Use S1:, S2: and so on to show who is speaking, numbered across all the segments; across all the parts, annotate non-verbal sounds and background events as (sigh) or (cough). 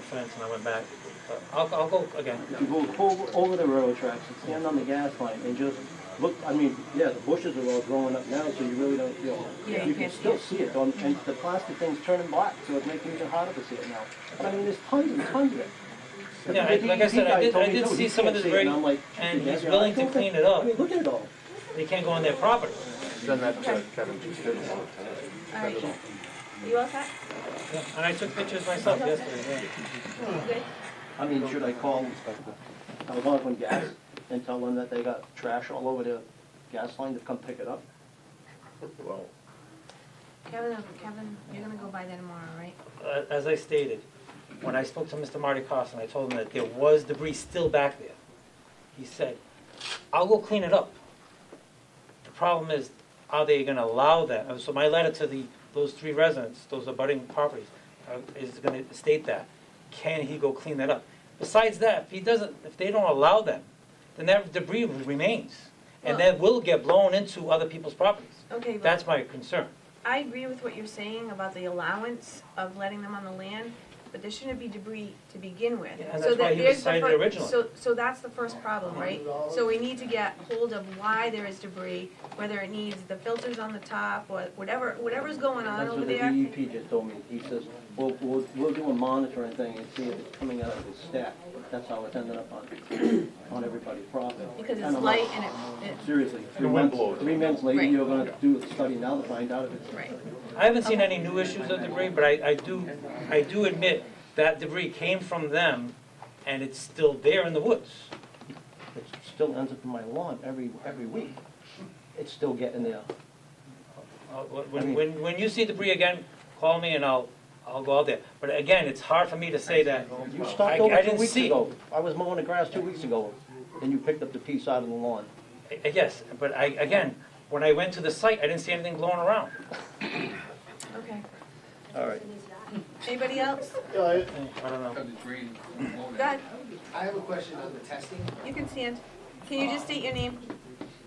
S1: fence and I went back. But I'll, I'll go again.
S2: You go over, over the railroad tracks and stand on the gas line and just look, I mean, yeah, the bushes are all growing up now, so you really don't feel
S3: Yeah,
S2: it.
S3: you
S2: You can
S3: can't see
S2: still
S3: it.
S2: see it, on- and the plastic thing's turning black, so it makes it even harder to see it now. But I mean, there's tons and tons of it.
S1: Yeah, I-
S2: The
S1: like I
S2: DEP
S1: said, I
S2: guy
S1: did,
S2: told
S1: I
S2: me,
S1: did
S2: "No,
S1: see
S2: he
S1: some of
S2: can't
S1: this
S2: see it," and
S1: rag,
S2: I'm like,
S1: and
S2: "Yeah,
S1: he's
S2: yeah, I
S1: willing to
S2: don't think-
S1: clean it up.
S2: I mean, look at it all.
S1: They can't go on their property.
S4: Send that to Kevin too.
S3: All right. You all set?
S1: Yeah, And I took pictures myself yesterday, yeah.
S3: Good?
S2: I mean, should I call Algonquin Gas and tell them that they got trash all over the gas line to come pick it up?
S4: Well,
S3: Kevin, Kevin, you're gonna go by there tomorrow, right?
S1: Uh, As I stated, when I spoke to Mr. Marty Carson, I told him that there was debris still back there. He said, I'll go clean it up. The problem is, are they gonna allow that? Uh, So my letter to the, those three residents, those abutting properties, uh, is gonna state that. Can he go clean that up? Besides that, if he doesn't, if they don't allow them, then that debris remains. And that will get blown into other people's properties.
S3: Okay, but
S1: That's my concern.
S3: I agree with what you're saying about the allowance of letting them on the land, but there shouldn't be debris to begin with.
S1: Yeah, and
S3: So
S1: that's why
S3: that
S1: he
S3: there's
S1: was
S3: the
S1: cited
S3: fir-
S1: originally.
S3: So, so that's the first problem, right? So we need to get hold of why there is debris, whether it needs the filters on the top, or whatever, whatever's going on
S2: That's
S3: over
S2: what the
S3: there.
S2: DEP just told me. He says, we'll, we'll, we'll do a monitoring thing and see if it's coming out of the stack. That's how it's ended up on, (clears throat) on everybody's property.
S3: Because
S2: And
S3: it's
S2: I'm like,
S3: light and it, it,
S2: Seriously, three
S4: wind
S2: months,
S4: blows.
S2: three months later,
S3: Right.
S2: you're gonna do the study now to find out if it's.
S3: right.
S1: I haven't seen any new issues of debris, but I, I do, I do admit that debris came from them and it's still there in the woods.
S2: It still ends up in my lawn every, every week. It's still getting there.
S1: Uh, When, when, when you see debris again, call me and I'll, I'll go out there. But again, it's hard for me to say that.
S2: You
S1: I-
S2: stopped
S1: I
S2: over two
S1: didn't
S2: weeks
S1: see.
S2: ago. I was mowing the grass two weeks ago, and you picked up the piece out of the lawn.
S1: I- I guess, but I, again, when I went to the site, I didn't see anything blowing around.
S3: Okay.
S2: All right.
S3: Anybody else?
S5: Yeah, I-
S1: I don't know.
S3: God,
S6: I have a question on the testing.
S3: you can stand. Can you just state your name?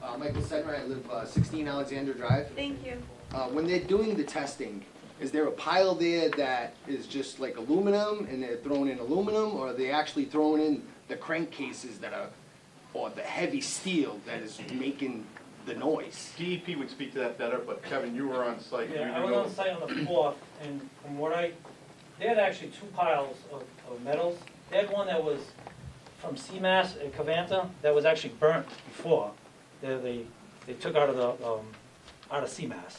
S6: Uh, Michael Sedmer, I live uh, 16 Alexander Drive.
S3: Thank you.
S6: Uh, When they're doing the testing, is there a pile there that is just like aluminum and they're throwing in aluminum? Or are they actually throwing in the crankcases that are, or the heavy steel that is making the noise?
S4: DEP E would speak to that better, but Kevin, you were on site. You
S1: Yeah, I
S4: you
S1: was
S4: know-
S1: on site on the fourth, and from what I, they had actually two piles of, of metals. They had one that was from CMAS at Cavanta, that was actually burnt before. They, they, they took out of the, um, out of CMAS.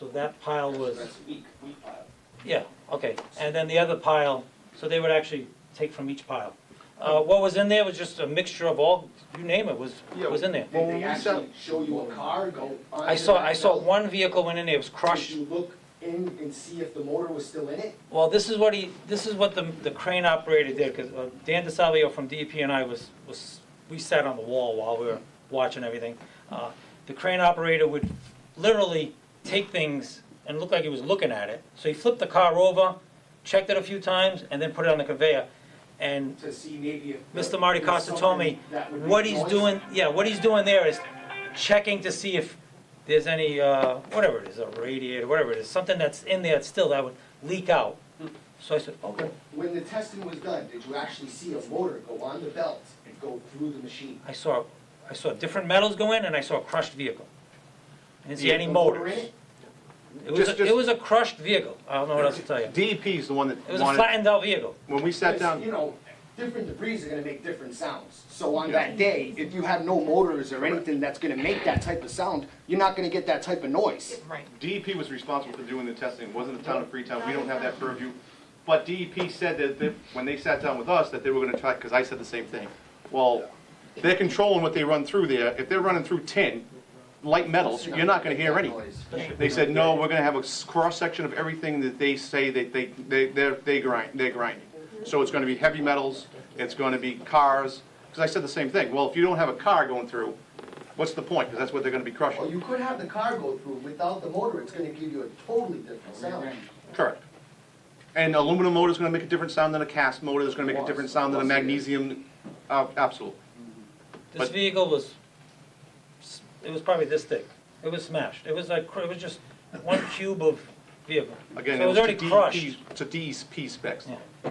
S1: So that pile was,
S6: That's weak, weak pile.
S1: yeah, okay. And then the other pile, so they would actually take from each pile. Uh, what was in there was just a mixture of all, you name it, was,
S4: Yeah,
S1: was in there.
S4: Well,
S6: Did
S4: when
S6: they
S4: we
S6: actually show you a car go on?
S1: I saw, I saw one vehicle went in there, it was crushed.
S6: Did you look in and see if the motor was still in it?
S1: Well, this is what he, this is what the, the crane operator did, because Dan DeSalvio from DEP and I was, was, we sat on the wall while we were watching everything. Uh, The crane operator would literally take things and look like he was looking at it. So he flipped the car over, checked it a few times, and then put it on the conveyor. And
S6: To see maybe if.
S1: Mr. Marty
S6: there's
S1: Costa told me,
S6: something that would make
S1: what he's
S6: noise?
S1: doing, yeah, what he's doing there is checking to see if there's any, uh, whatever it is, a radiator, whatever it is, something that's in there still that would leak out. So I said, okay.
S6: When the testing was done, did you actually see a motor go on the belt and go through the machine?
S1: I saw, I saw different metals go in and I saw a crushed vehicle. I didn't see any
S6: The motor in
S1: motors.
S6: it?
S1: It was,
S4: Just-
S1: a- it
S4: just-
S1: was a crushed vehicle, I don't know what else to tell you.
S4: DEP E is the one that
S1: It was a
S4: wanted,
S1: flattened out vehicle.
S4: when we sat
S6: Because,
S4: down,
S6: You know, different debris are gonna make different sounds. So on that day, if you have no motors or anything that's gonna make that type of sound, you're not gonna get that type of noise.
S3: Right.
S4: DEP E was responsible for doing the testing, It wasn't the town of Freetown, we don't have that purview. But DEP said that, they- when they sat down with us, that they were gonna try, because I said the same thing. Well, they're controlling what they run through there, if they're running through tin, light metals, you're not gonna hear anything. They said, no, we're gonna have a s- cross-section of everything that they say that they, they, they're, they grind, they're grinding. So it's gonna be heavy metals, it's gonna be cars, because I said the same thing, well, if you don't have a car going through, what's the point? Because that's what they're gonna be
S6: Or
S4: crushing.
S6: you could have the car go through without the motor, it's gonna give you a totally different sound.
S4: Correct. And aluminum motor's gonna make a different sound than a cast motor, it's gonna make a different sound than a magnesium, uh, absolutely.
S1: This
S4: But-
S1: vehicle was, s- it was probably this thick. It was smashed. It was like, cr- it was just one cube of vehicle.
S4: Again,
S1: So
S4: it was to
S1: already crushed.
S4: DEP, to DEP specs.
S1: Yeah.